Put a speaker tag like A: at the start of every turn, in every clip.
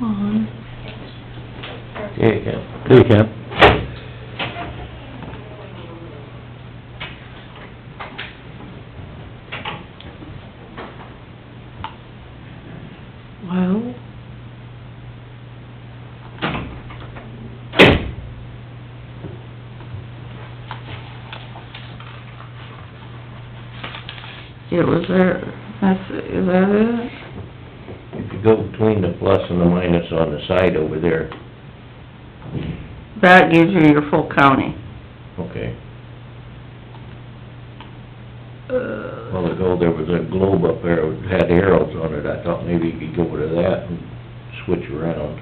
A: on.
B: There you go. There you go.
A: Well. It was there, that's, is that it?
B: If you go between the plus and the minus on the side over there,
A: That gives you your full county.
B: okay. A
A: Uh,
B: while ago, there was a globe up there that had arrows on it, I thought maybe you could go to that and switch around.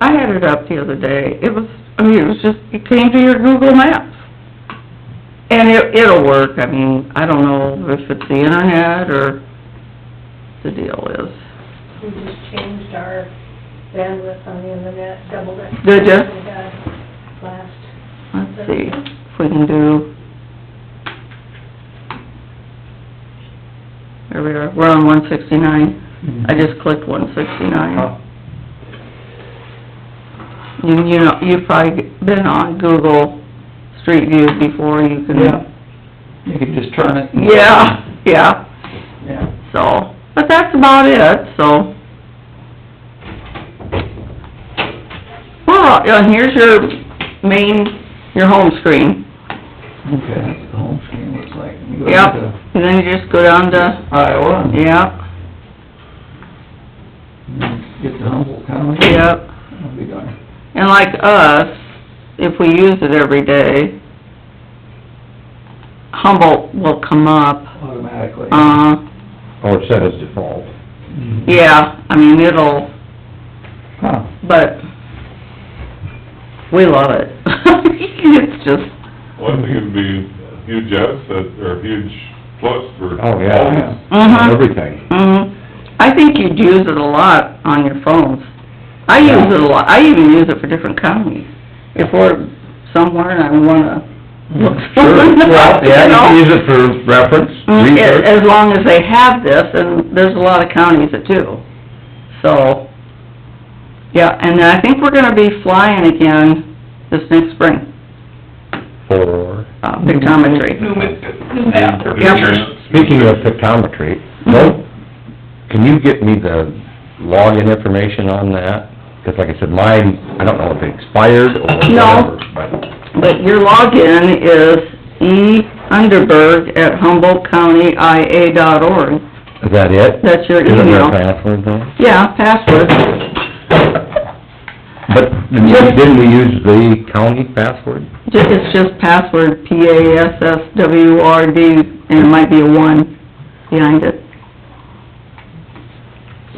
A: I had it up the other day, it was, I mean, it was just, it came to your Google Maps. And it, it'll work, I mean, I don't know if it's the internet or the deal is.
C: We just changed our bandwidth on the internet, doubled it.
A: Did ya?
C: We got Last.
A: Let's see if we can do... There we are, we're on one sixty-nine. I just clicked one sixty-nine. You, you know, you've probably been on Google Street View before, you
D: Yeah.
A: can...
D: You can just turn it. and-
A: Yeah, yeah,
D: Yeah.
A: so, but that's about it, so... Well, and here's your main, your home screen.
D: Okay, that's what the home screen looks like. You go
A: Yep,
D: to
A: and then you just go down to,
D: Iowa. and-
A: yep,
D: and then Get to Humboldt County.
A: yep.
D: I'll be darned.
A: And like us, if we use it every day, Humboldt will come up,
D: Automatically.
A: uh,
B: Or set as default.
D: Mhm.
A: yeah, I mean, it'll,
D: Huh.
A: but we love it. It's just,
E: Well, I think it'd be a huge asset, or a huge plus for.
B: Oh, yeah.
E: all of
D: Yeah.
E: us.
A: mhm,
B: Everything.
A: mhm. I think you'd use it a lot on your phones. I use it a lot, I even use it for different counties. If we're somewhere and I wanna
D: Mm-hmm.
A: look
B: Sure, well, yeah,
A: you
B: you
A: know?
B: can use it for reference,
A: Mm, a-
B: research.
A: As long as they have this, and there's a lot of counties that do, so, yeah, and I think we're gonna be flying again this next spring,
B: For,
A: uh, pictometry.
B: speaking of pictometry, no, can you get me the login information on that? Because like I said, mine, I don't know if it expired or
A: No.
B: whatever, but...
A: But your login is E Underberg at HumboldtCountyIA dot org,
B: Is that it?
A: that's your
B: Isn't there a
A: email.
B: password though?
A: Yeah, password,
B: But didn't we use the county password?
A: Ju- it's just password, P A S S W R D, and it might be a one behind it,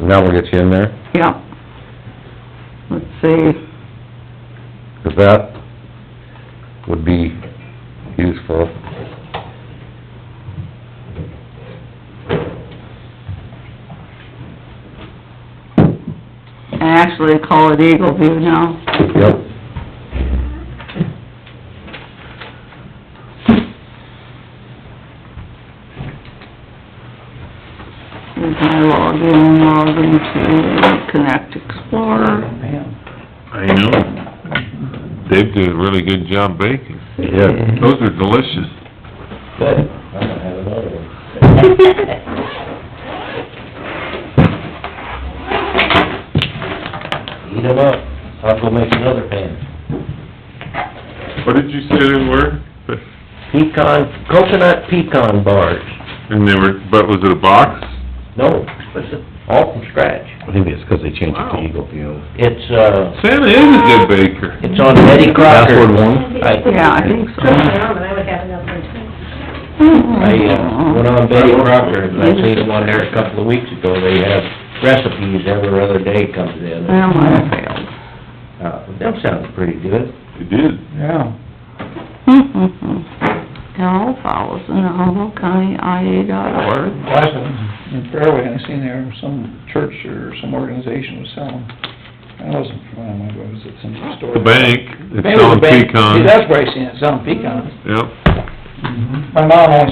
B: And that will get you in there?
A: yeah. Let's see.
B: Because that would be useful.
A: I actually call it Eagle View now.
B: Yep.
A: Here's my login, login to Connect Explorer.
D: Man.
E: I know, Dave did a really good job baking.
B: Yeah.
E: Those are delicious.
B: Good. I'm gonna have another one. Eat 'em up. I'll go make another pan.
E: What did you say they were?
B: Pecan, coconut pecan bars.
E: And they were, but was it a box?
B: No, all from scratch. Maybe it's because they changed it to Eagle View. It's, uh,
E: Santa is a good baker.
B: It's on Betty Crocker. Password one?
A: Yeah, I think so.
C: Phenomenal, I would have another one
B: I, uh, went on Betty Crocker, and I seen them on there a couple of weeks ago, they have recipes every other day comes in.
A: Well, I failed.
B: Uh, that sounds pretty good.
E: It did.
D: Yeah.
A: Carol Fowles in the Humboldt County IA dot org.
D: Last one, in Fairway, I seen there, some church or some organization was selling. I wasn't from, I remember, was it some store?
E: The bank,
D: Maybe it was
E: it's on
D: a bank. See,
E: pecans.
D: that's where I seen it, selling pecans.
E: Yep.
D: My mom always